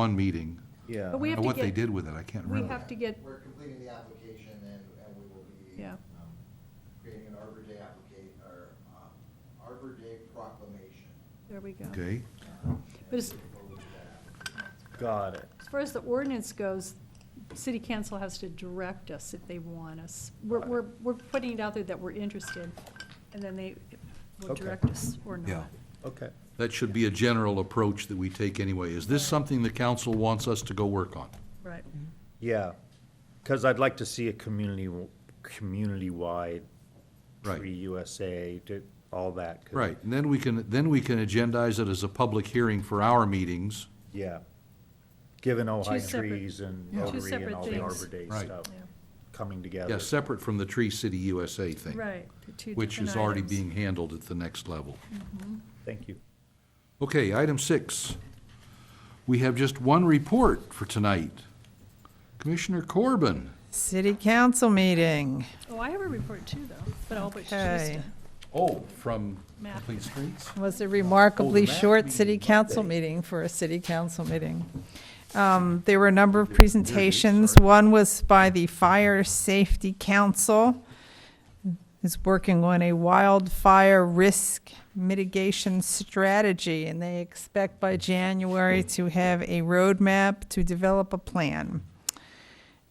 one meeting. Yeah. But we I have don't to know what they get, did with it, I can't we remember. have to get, We're completing the application and, and we will be. Yeah. um, Creating an Arbor Day applicate, or, um, Arbor Day proclamation. Um, there we go. Okay, But as, Got it. as far as the ordinance goes, city council has to direct us if they want us. We're, we're, we're putting it out there that we're interested, and then they will Okay. direct us or yeah. not. Okay. That should be a general approach that we take anyway. Is this something the council wants us to go work on? Right. Yeah, because I'd like to see a community, community-wide Right. Tree USA, do all that. 'cause- Right, and then we can, then we can agendize it as a public hearing for our meetings. Yeah. Given Ojai separate- Trees and Yeah. Two Rotary and separate all the things. Arbor Day Right. stuff Yeah. coming together. Yeah, separate from the Tree City USA thing. Right. the two Which different is already items. being handled at the next level. Thank you. Okay, item six. We have just one report for tonight. Commissioner Corbin. City council meeting. Oh, I have a report too, though, but I'll put Trista. Okay. Oh, from Matt. Complete Streets? was a remarkably last short meeting, city Monday. council meeting for a city council meeting. Um, There were a number of presentations. One was by the Fire Safety Council, who's working on a wildfire risk mitigation strategy, and they expect by January to have a roadmap to develop a plan.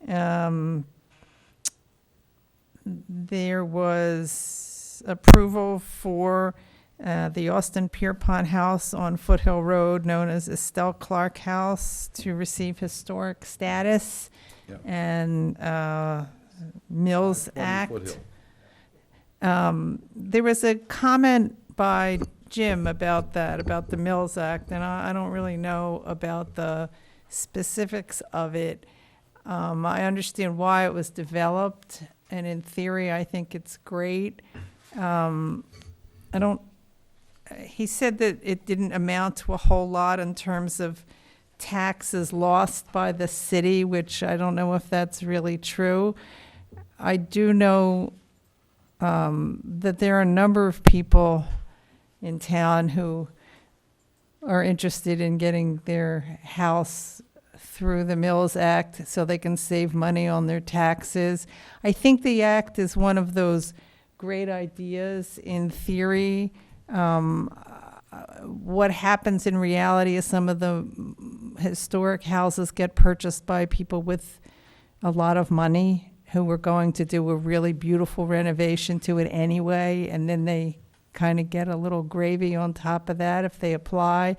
Um, There was approval for uh, the Austin Pierpont House on Foothill Road, known as Estelle Clark House, to receive historic status. Yep. And uh, Mills Twenty Act. Foothill. Um, There was a comment by Jim about that, about the Mills Act, and I I don't really know about the specifics of it. Um, I understand why it was developed, and in theory, I think it's great. Um, I don't, he said that it didn't amount to a whole lot in terms of taxes lost by the city, which I don't know if that's really true. I do know um, that there are a number of people in town who are interested in getting their house through the Mills Act so they can save money on their taxes. I think the act is one of those great ideas in theory. Um, uh, What happens in reality is some of the mm, historic houses get purchased by people with a lot of money who were going to do a really beautiful renovation to it anyway, and then they kind of get a little gravy on top of that if they apply.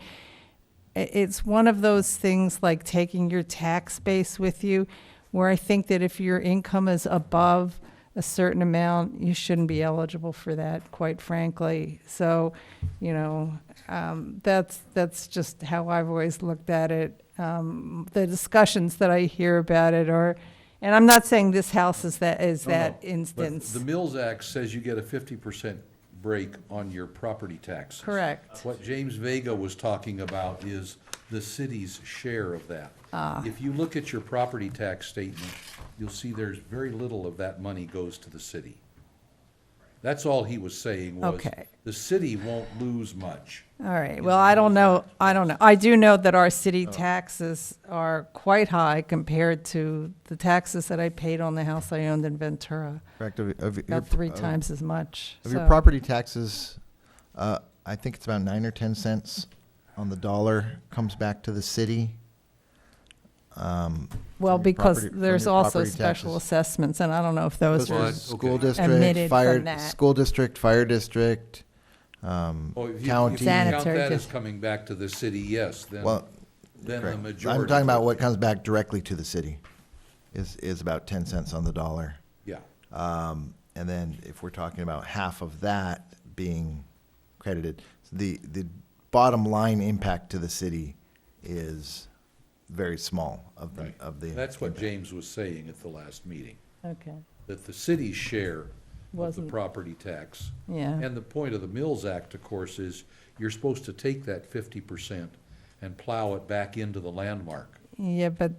I- It's one of those things like taking your tax base with you, where I think that if your income is above a certain amount, you shouldn't be eligible for that, quite frankly. So, you know, um, that's, that's just how I've always looked at it. Um, the discussions that I hear about it are, and I'm not saying this house is that, is No, no, that but instance. The Mills Act says you get a fifty percent break on your property taxes. Correct. What James Vega was talking about is the city's share of that. Ah. If you look at your property tax statement, you'll see there's very little of that money goes to the city. That's all he was saying was, Okay. the city won't lose much. All right, well, I don't know, I don't know. I do know that our city Oh. taxes are quite high compared to the taxes that I paid on the house I owned in Ventura, Correct, of, of. your- about three of- times as much. Of your So- property taxes, uh, I think it's about nine or ten cents on the dollar comes back to the city. Um, Well, from your because property- from there's your also property special taxes. assessments, and I don't know if those Those are were, But- School okay. district, Omitted fire, from that. school district, fire district, um, Oh, if you- If county. you count Sanitary that as dis- coming back to the city, yes, then, Well, then the correct. majority. I'm talking about what comes back directly to the city is, is about ten cents on the dollar. Yeah, Um, and then if we're talking about half of that being credited, the, the bottom line impact to the city is very small of the, Right. of the. that's what impact. James was saying at the last meeting. okay, that the city's share of the Wasn't- property tax. yeah, And the point of the Mills Act, of course, is you're supposed to take that fifty percent and plow it back into the landmark. yeah, but,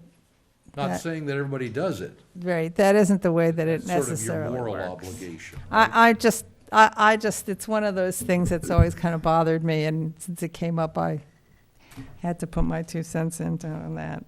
Not That- saying that everybody does it. right, that isn't the way that it It's sort of your necessarily moral works. obligation. right? I, I just, I, I just, it's one of those things that's always kind of bothered me, and since it came up, I had to put my two cents in on that.